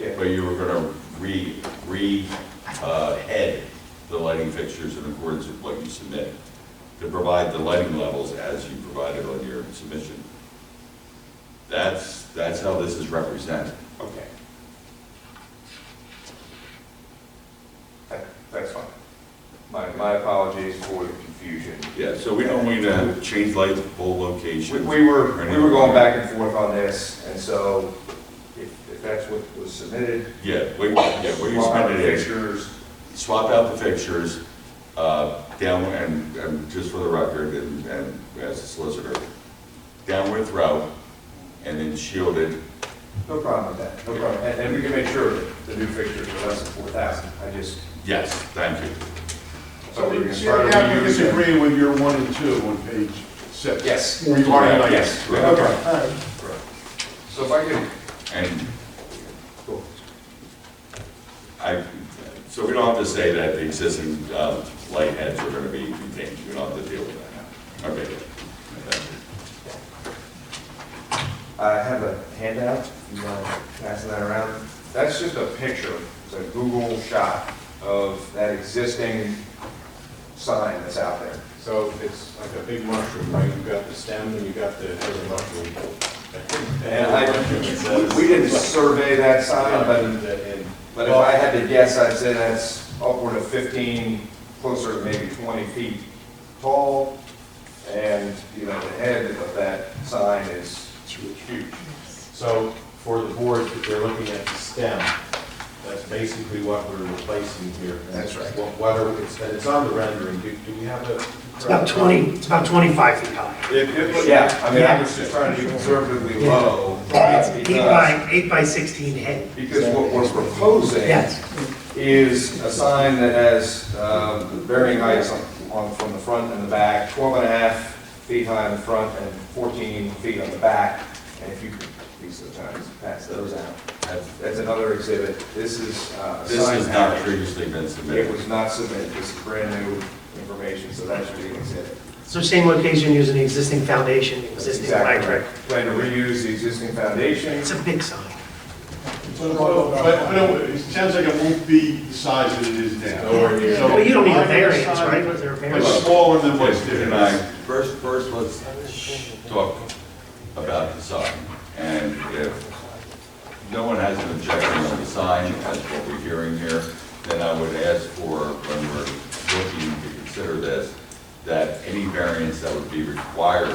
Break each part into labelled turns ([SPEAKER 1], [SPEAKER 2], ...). [SPEAKER 1] Yeah.
[SPEAKER 2] but you were gonna re, re, uh, head the lighting fixtures in accordance with what you submitted, to provide the lighting levels as you provided on your submission. That's, that's how this is represented.
[SPEAKER 1] Okay. That- That's fine. My, my apologies for the confusion.
[SPEAKER 2] Yeah, so we don't need to change lights, pole
[SPEAKER 1] We
[SPEAKER 2] locations.
[SPEAKER 1] we were, we were going back and forth on this, and so if, if that's what was submitted.
[SPEAKER 2] Yeah, we, yeah, we
[SPEAKER 1] swap out
[SPEAKER 2] submitted
[SPEAKER 1] the
[SPEAKER 2] it.
[SPEAKER 1] Fixtures,
[SPEAKER 2] swap out the fixtures, uh, down, and, and just for the record, and, and as a solicitor, downward throw, and then shielded,
[SPEAKER 1] no problem with that, no problem. And, and we can make sure that the new fixtures are less than four thousand, I just.
[SPEAKER 2] yes, thank you.
[SPEAKER 1] so we can
[SPEAKER 3] Yeah,
[SPEAKER 1] start
[SPEAKER 3] we
[SPEAKER 1] with you.
[SPEAKER 3] disagree with your one and two on page six.
[SPEAKER 1] Yes.
[SPEAKER 3] Regarding lighting.
[SPEAKER 1] Yes,
[SPEAKER 3] Right.
[SPEAKER 1] okay.
[SPEAKER 3] All right.
[SPEAKER 1] So if I can,
[SPEAKER 2] And
[SPEAKER 1] cool.
[SPEAKER 2] I, so we don't have to say that the existing, uh, light heads are gonna be contained, we don't have to deal with that. Okay,
[SPEAKER 1] I have a handout, you want to pass that around? That's just a picture, it's a Google shot of that existing sign that's out there.
[SPEAKER 4] So it's like a big mushroom, right? You've got the stem and you've got the head of the mushroom.
[SPEAKER 1] And I, we didn't survey that sign, but, but if I had to guess, I'd say that's upward of fifteen, closer to maybe twenty feet tall. And, you know, the head of that sign is huge.
[SPEAKER 4] So for the board, if they're looking at the stem, that's basically what we're replacing here.
[SPEAKER 1] That's right.
[SPEAKER 4] What- What are, it's, and it's on the rendering. Do, do we have the?
[SPEAKER 5] It's about 20, it's about 25 feet high.
[SPEAKER 1] It, it was, yeah, I mean, I was just trying to be conservatively low.
[SPEAKER 5] It's an eight
[SPEAKER 1] because-
[SPEAKER 5] by, eight by 16 head.
[SPEAKER 1] Because what we're proposing
[SPEAKER 5] Yes,
[SPEAKER 1] is a sign that has um, varying heights on- on, from the front and the back, 12 and a half feet high in the front and 14 feet on the back. And if you could, these are the times, pass those out.
[SPEAKER 2] that's-
[SPEAKER 1] That's another exhibit. This is uh, a
[SPEAKER 2] This
[SPEAKER 1] sign.
[SPEAKER 2] has not previously been
[SPEAKER 1] It
[SPEAKER 2] submitted.
[SPEAKER 1] was not submitted. This is brand new information, so that should be an exhibit.
[SPEAKER 5] so same location using the existing foundation, existing
[SPEAKER 1] Exactly
[SPEAKER 5] electric.
[SPEAKER 1] right. Plan to reuse the existing foundation.
[SPEAKER 5] It's a big sign.
[SPEAKER 3] But, but no, it sounds like it won't be the size that it is now. So-
[SPEAKER 5] But you don't need a variance, right? Was there a
[SPEAKER 3] It's
[SPEAKER 5] variance?
[SPEAKER 3] smaller than what's
[SPEAKER 2] And I,
[SPEAKER 3] there.
[SPEAKER 2] first, first, let's talk about the sign. And if no one has an objection on the sign, that's what we're hearing here, then I would ask for, when we're looking to consider this, that any variance that would be required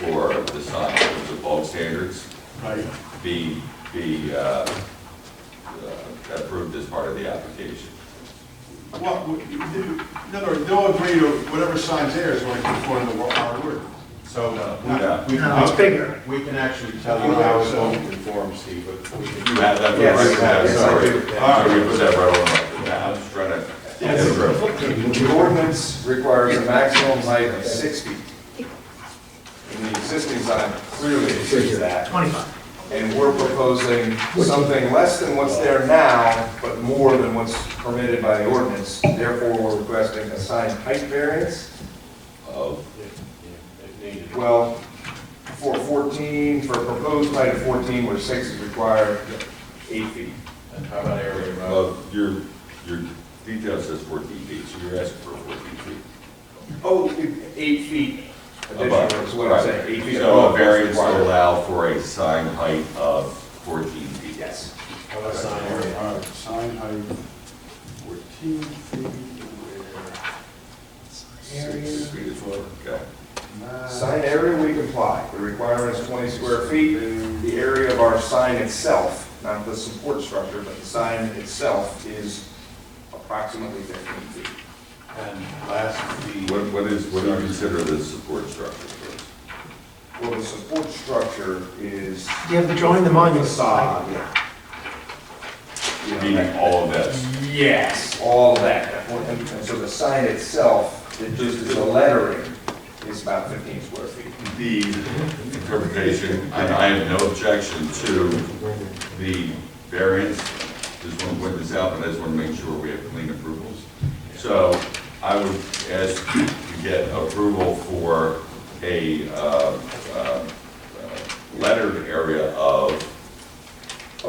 [SPEAKER 2] for the sign, with the bulk standards,
[SPEAKER 3] Right.
[SPEAKER 2] be, be uh, uh, approved as part of the application.
[SPEAKER 3] What, what- in other words, they'll agree to whatever sign's there is going to conform to our word.
[SPEAKER 4] So. uh,
[SPEAKER 2] No.
[SPEAKER 4] we can-
[SPEAKER 5] No, it's bigger.
[SPEAKER 4] We can actually tell you how it won't conform, Steve, but we
[SPEAKER 2] You
[SPEAKER 4] can.
[SPEAKER 2] have that,
[SPEAKER 1] Yes,
[SPEAKER 2] right, you have,
[SPEAKER 1] yes, I
[SPEAKER 2] sorry.
[SPEAKER 1] do.
[SPEAKER 2] All right, we put that right on, the- yeah, I'm just trying to. get it through.
[SPEAKER 1] The ordinance requires a maximum height of six feet. And the existing sign clearly exceeds that.
[SPEAKER 5] 25.
[SPEAKER 1] And we're proposing something less than what's there now, but more than what's permitted by the ordinance. Therefore, we're requesting a sign height variance,
[SPEAKER 2] Oh,
[SPEAKER 4] If needed.
[SPEAKER 1] well, for 14, for a proposed height of 14, where six is required, eight feet.
[SPEAKER 4] And how about area, Rob?
[SPEAKER 2] well, your, your detail says fourteen feet, so you're asking for fourteen feet.
[SPEAKER 1] Oh, eight feet additional is what I'm saying, eight feet
[SPEAKER 2] So a
[SPEAKER 1] above. what's
[SPEAKER 2] variance to
[SPEAKER 1] required.
[SPEAKER 2] allow for a sign height of fourteen feet.
[SPEAKER 1] Yes.
[SPEAKER 4] How about sign area?
[SPEAKER 3] All right, Sign height, fourteen feet where.
[SPEAKER 2] Six feet is what, okay.
[SPEAKER 1] Sign area, we comply. The requirement is 20 square feet. The area of our sign itself, not the support structure, but the sign itself is approximately 15 feet.
[SPEAKER 4] And last, the.
[SPEAKER 2] What, what is, what do you consider the support structure?
[SPEAKER 1] Well, the support structure is
[SPEAKER 5] Do you have the drawing, the monument?
[SPEAKER 1] facade. You know,
[SPEAKER 2] Meaning
[SPEAKER 1] that-
[SPEAKER 2] all of this?
[SPEAKER 1] Yes, all of that. And and so the sign itself, it just is the lettering, is about 15 square feet.
[SPEAKER 2] the interpretation, and I have no objection to the variance. Just want to point this out, but I just want to make sure we have clean approvals. So I would ask to get approval for a uh, uh, uh, lettered area of